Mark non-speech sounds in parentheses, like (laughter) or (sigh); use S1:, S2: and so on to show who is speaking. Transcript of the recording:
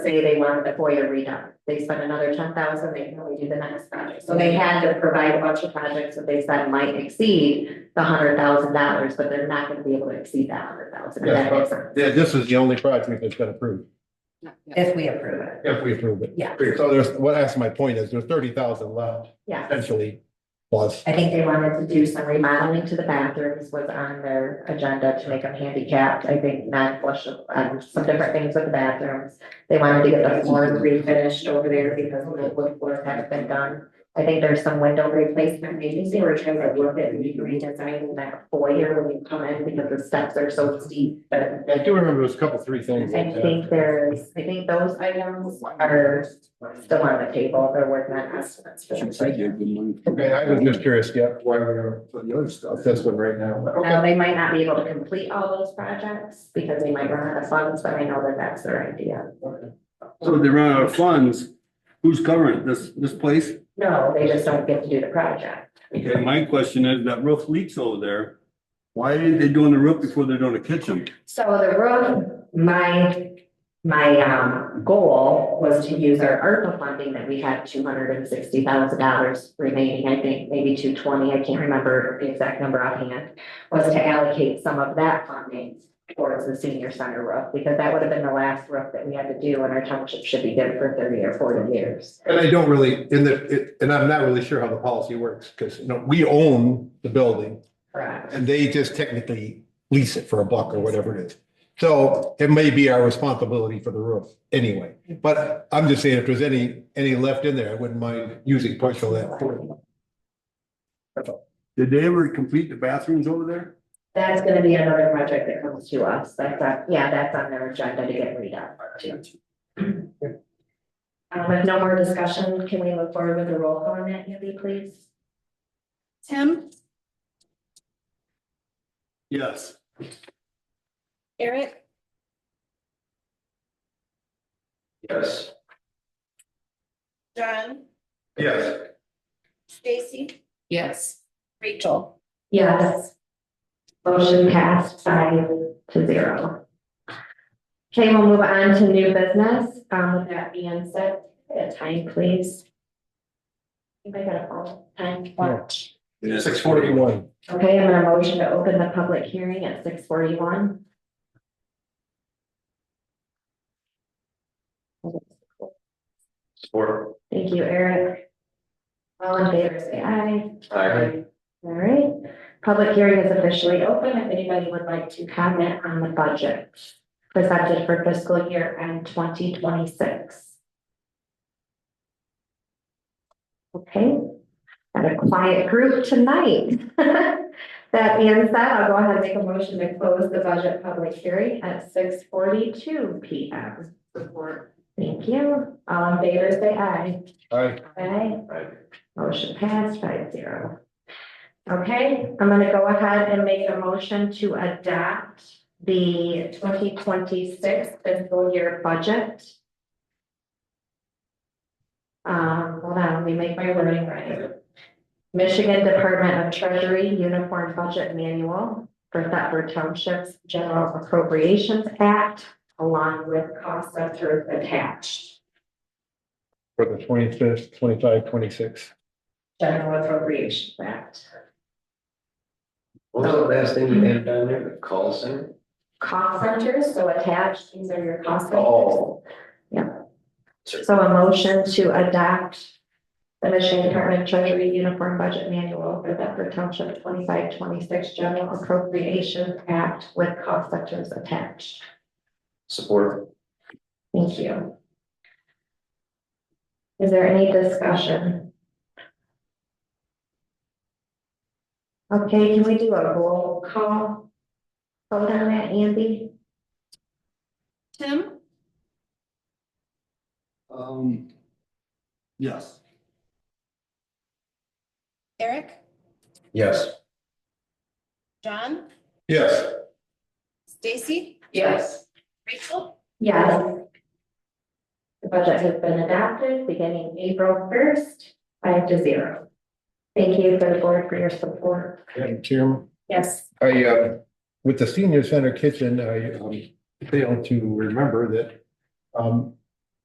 S1: say they want the FOIA redone. They spent another ten thousand, they can only do the next project. So they had to provide a bunch of projects that they said might exceed the hundred thousand dollars, but they're not gonna be able to exceed that hundred thousand.
S2: Yeah, but th- this is the only project that's been approved,
S1: If we approve it.
S2: if we approve it.
S1: Yeah.
S2: So there's, what, that's my point is there's thirty thousand left
S1: Yeah,
S2: essentially plus.
S1: I think they wanted to do some remodeling to the bathrooms was on their agenda to make them handicapped. I think not flush, um, some different things with the bathrooms. They wanted to get the floors refinished over there because the wood floors haven't been done. I think there's some window replacement, maybe they were trying to look at redesigning that foyer when you come in because the steps are so steep, but.
S2: I do remember there's a couple, three things.
S1: I think there's, I think those items are still on the table, they're working on estimates for them.
S2: Okay, I was just curious, yeah, why we're, for the other stuff, this one right now. but
S1: Now,
S2: Okay,
S1: they might not be able to complete all those projects because they might run out of funds, but I know that that's their idea.
S3: So if they run out of funds, who's covering it? This, this place?
S1: No, they just don't get to do the project.
S3: Okay, my question is, that roof leaks over there. Why are they doing the roof before they're doing the kitchen?
S1: So the road, my, my, um, goal was to use our ARPA funding that we had two hundred and sixty thousand dollars remaining, I think, maybe two twenty, I can't remember the exact number offhand, was to allocate some of that funding towards the senior center roof, because that would have been the last roof that we had to do, and our township should be good for thirty or forty years.
S2: And I don't really, in the, it- and I'm not really sure how the policy works, because, you know, we own the building
S1: Correct.
S2: and they just technically lease it for a buck or whatever it is. So it may be our responsibility for the roof anyway, but I'm just saying if there's any, any left in there, I wouldn't mind using partial of that. for it.
S3: Did they ever complete the bathrooms over there?
S1: That's gonna be another project that comes to us, that's, on- yeah, that's on their agenda to get read up too. Um, if no more discussion, can we move forward with the roll call on that, Andy, please?
S4: Tim,
S3: Yes.
S4: Eric,
S3: Yes.
S4: John,
S3: Yes.
S4: Stacy. Yes. Rachel.
S1: Yes. Motion passed five to zero. Okay, we'll move on to new business, um, with that being said, at time, please. Anybody got a phone? time watch?
S2: Six forty-one.
S1: Okay, I'm gonna motion to open the public hearing at six forty-one.
S3: Support.
S1: Thank you, Eric. All in favor, say aye. All right, public hearing is officially open. If anybody would like to comment on the budget presented for fiscal year end twenty twenty-six. Okay, got a quiet group tonight. (laughs) That being said, I'll go ahead and make a motion to close the budget public hearing at six forty-two P M. Support. Thank you. All in favor, say aye.
S2: All right,
S1: Aye.
S3: Aye.
S1: Motion passed five zero. Okay, I'm gonna go ahead and make a motion to adopt the twenty twenty-six fiscal year budget. Um, hold on, let me make my wording right. Michigan Department of Treasury Uniform Budget Manual for Thetford Township's General Appropriations Act, along with cost center attached.
S2: for the twenty-fifth, twenty-five, twenty-six.
S1: General Appropriations Act.
S5: What was the last thing you had down there, the call center?
S1: cost centers, so attached, these are your cost centers.
S5: Oh.
S1: So a motion to adopt the Michigan Department of Treasury Uniform Budget Manual for Bedford Township twenty-five, twenty-six General Appropriation Act with cost centers attached.
S5: Support.
S1: Thank you. Is there any discussion? Okay, can we do a roll call? Hold on, that, Andy?
S4: Tim,
S3: Um. Yes.
S4: Eric,
S5: Yes.
S4: John,
S2: Yes.
S4: Stacy. Rachel.
S1: Yes. The budget has been adopted beginning April first, five to zero. Thank you for the board for your support.
S2: Madam Chairman,
S1: Yes.
S2: I, uh, with the senior center kitchen, I, um, failed to remember that, um,